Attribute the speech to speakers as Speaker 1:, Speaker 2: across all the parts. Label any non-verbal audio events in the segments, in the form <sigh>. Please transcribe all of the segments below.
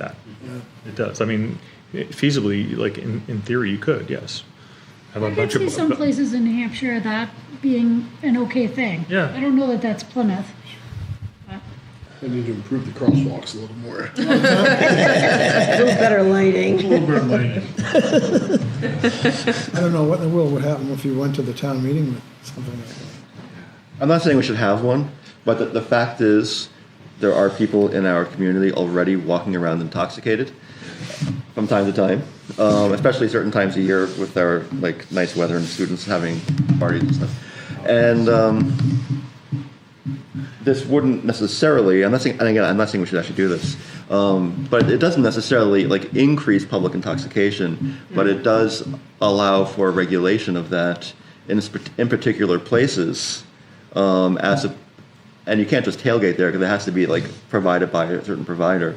Speaker 1: that. It does. I mean, feasibly, like in, in theory, you could, yes. Have a
Speaker 2: I could
Speaker 1: bunch
Speaker 2: see
Speaker 1: of.
Speaker 2: some places in New Hampshire that being an okay thing.
Speaker 1: Yeah.
Speaker 2: I don't know that that's Plymouth.
Speaker 3: I need to improve the crosswalks a little more.
Speaker 4: A little better lighting.
Speaker 5: I don't know what in the world would happen if you went to the town meeting with something like that.
Speaker 6: I'm not saying we should have one, but the, the fact is, there are people in our community already walking around intoxicated from time to time, um, especially certain times of year with our like nice weather and students having parties and stuff. And um, this wouldn't necessarily. I'm not saying, and again, I'm not saying we should actually do this, um, but it doesn't necessarily like increase public intoxication, but it does allow for regulation of that in sp- in particular places um, as a, and you can't just tailgate there because it has to be like provided by a certain provider.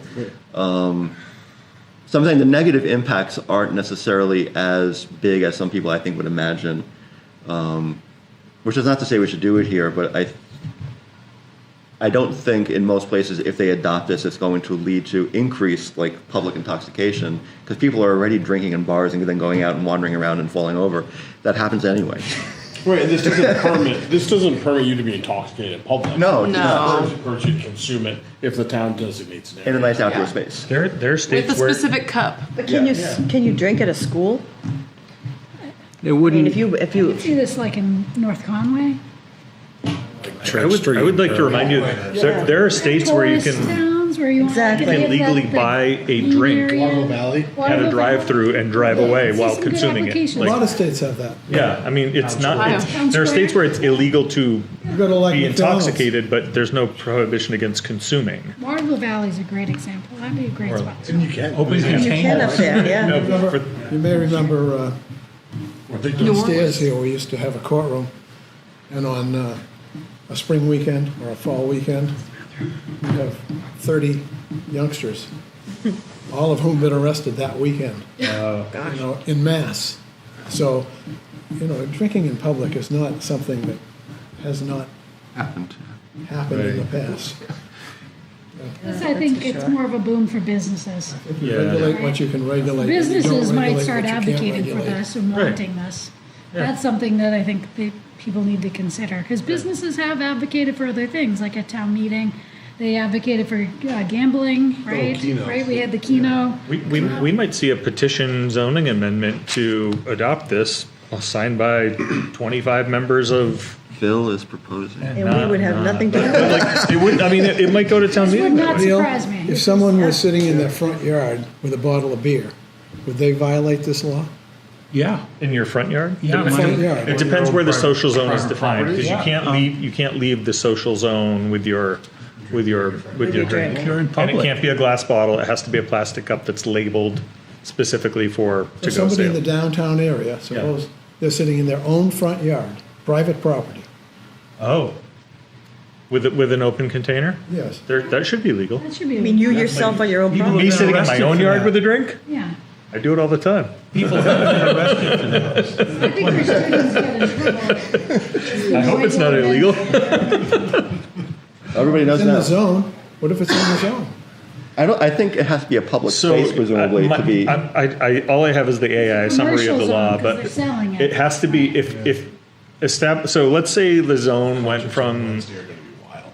Speaker 6: Um, so I'm saying the negative impacts aren't necessarily as big as some people I think would imagine. Um, which is not to say we should do it here, but I, I don't think in most places if they adopt this, it's going to lead to increased like public intoxication because people are already drinking in bars and then going out and wandering around and falling over. That happens anyway.
Speaker 7: Right, and this doesn't permit, this doesn't permit you to be intoxicated in public.
Speaker 6: No, it does
Speaker 7: It
Speaker 6: not.
Speaker 7: doesn't permit you to consume it if the town designates it.
Speaker 6: in a nice outdoor
Speaker 8: Yeah.
Speaker 6: space.
Speaker 1: There, there are
Speaker 8: With a
Speaker 1: states where.
Speaker 8: specific cup.
Speaker 4: <laughs> But can you, can you drink at a school?
Speaker 9: It
Speaker 4: I mean, if
Speaker 9: wouldn't,
Speaker 4: you, if you,
Speaker 2: See this like in North Conway?
Speaker 1: I would, I would like to remind you, there, there are states where you
Speaker 2: Tourist
Speaker 1: can,
Speaker 2: Towns where you.
Speaker 4: Exactly.
Speaker 1: you can legally buy a drink
Speaker 3: Lago Valley.
Speaker 1: at a drive-through and drive away while consuming it.
Speaker 5: A lot
Speaker 1: Like,
Speaker 5: of states have that.
Speaker 1: yeah, I mean, it's not,
Speaker 2: Ohio.
Speaker 1: it's, there are states where it's illegal to
Speaker 5: You go to like
Speaker 1: be
Speaker 5: McDonald's.
Speaker 1: intoxicated, but there's no prohibition against consuming.
Speaker 2: Marble Valley's a great example. That'd be a great spot.
Speaker 3: And you can.
Speaker 1: Open
Speaker 4: you can up there, yeah.
Speaker 5: Remember- You may remember uh,
Speaker 8: New
Speaker 5: upstairs
Speaker 8: Orleans.
Speaker 5: here, we used to have a courtroom, and on uh, a spring weekend or a fall weekend, we'd have 30 youngsters, all of whom been arrested that weekend. You know, in mass. So, you know, drinking in public is not something that has not
Speaker 6: Happened.
Speaker 5: happened in the past.
Speaker 2: This, I think it's more of a boom for businesses.
Speaker 5: If you
Speaker 1: Yeah.
Speaker 5: regulate what you can regulate. if you don't
Speaker 2: Businesses might
Speaker 5: regulate
Speaker 2: start
Speaker 5: what you can't
Speaker 2: advocating for
Speaker 5: regulate-
Speaker 2: this and
Speaker 1: Right.
Speaker 2: wanting this. That's something that I think the people need to consider, because businesses have advocated for other things, like at town meeting. They advocated for uh,
Speaker 1: Oh,
Speaker 2: gambling, right?
Speaker 3: Keno.
Speaker 2: Right, we had the Keno.
Speaker 1: We, we, we might see a petition zoning amendment to adopt this, uh, signed by 25 members of.
Speaker 6: Phil is proposing.
Speaker 4: And we would have nothing to do with it.
Speaker 1: Like, it would, I mean, it, it might go to town
Speaker 2: Would
Speaker 1: meeting.
Speaker 2: not
Speaker 5: Neil,
Speaker 2: surprise me.
Speaker 5: If someone was sitting in their front yard with a bottle of beer, would they violate this law?
Speaker 9: yeah.
Speaker 1: In your front yard?
Speaker 9: Yeah,
Speaker 1: Depends-
Speaker 5: Front yard.
Speaker 1: It depends where the social zone is defined, because you
Speaker 9: Yeah.
Speaker 1: can't leave, you can't leave the social zone with your, with your, with your drink.
Speaker 9: If you're in
Speaker 1: And it
Speaker 9: public.
Speaker 1: can't be a glass bottle, it has to be a plastic cup that's labeled specifically for
Speaker 5: So
Speaker 1: to-go
Speaker 5: somebody in the
Speaker 1: sale.
Speaker 5: downtown area, suppose they're sitting in their own front yard, private property.
Speaker 1: Oh. With, a- with an open container?
Speaker 5: Yes.
Speaker 1: There, that should be legal.
Speaker 2: That should be.
Speaker 4: I mean, you yourself on your own
Speaker 9: People
Speaker 1: Me
Speaker 4: property.
Speaker 9: been
Speaker 1: sitting in my
Speaker 9: arrested
Speaker 1: own
Speaker 9: for
Speaker 1: yard
Speaker 9: that.
Speaker 1: with a drink? <laughs>
Speaker 2: Yeah.
Speaker 1: I do it all the time.
Speaker 9: People have been arrested for that.
Speaker 2: I think our students get in trouble.
Speaker 1: I hope it's not illegal.
Speaker 6: Everybody knows
Speaker 5: It's in the
Speaker 6: that.
Speaker 5: zone, what if it's in the zone?
Speaker 6: I don't. I think it has to be a public space, presumably,
Speaker 1: uh, my-
Speaker 6: to be.
Speaker 1: I, I, I, all I have is the AI summary of the
Speaker 2: Commercial
Speaker 1: law,
Speaker 2: zone, 'cause
Speaker 1: but
Speaker 2: they're selling it.
Speaker 1: it has to be if if estab- So let's say the zone went from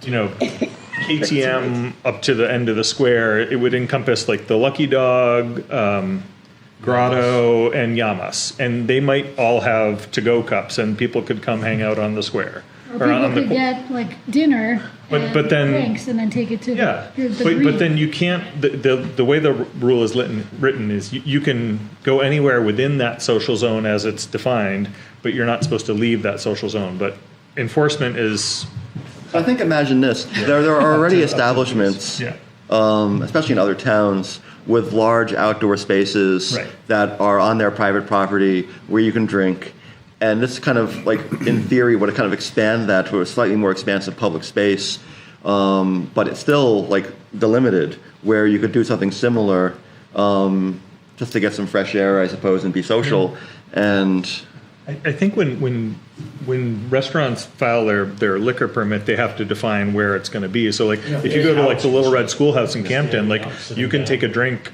Speaker 1: you know KTM up to the end of the square. It would encompass like the Lucky Dog. Um, Grotto and Yamas, and they might all have to-go cups, and people could come hang out on the square
Speaker 2: Or people
Speaker 1: on the
Speaker 2: could
Speaker 1: po-
Speaker 2: get like dinner
Speaker 1: But-
Speaker 2: and
Speaker 1: but then-
Speaker 2: drinks and then take it to the.
Speaker 1: Yeah,
Speaker 2: the- the
Speaker 1: but,
Speaker 2: green.
Speaker 1: but then you can't, the, the, the way the r- rule is written, written is you, you can go anywhere within that social zone as it's defined, but you're not supposed to leave that social zone, but enforcement is,
Speaker 6: I think imagine this. There, there are already establishments, um, especially in other towns, with large outdoor spaces
Speaker 1: Right.
Speaker 6: that are on their private property where you can drink. And this kind of, like, in theory, would kind of expand that to a slightly more expansive public space, um, but it's still, like, delimited where you could do something similar um, just to get some fresh air, I suppose, and be social. And
Speaker 1: I, I think when, when, when restaurants file their, their liquor permit, they have to define where it's gonna be. So like, if you go to like the Little Red Schoolhouse in Camden, like, you can take a drink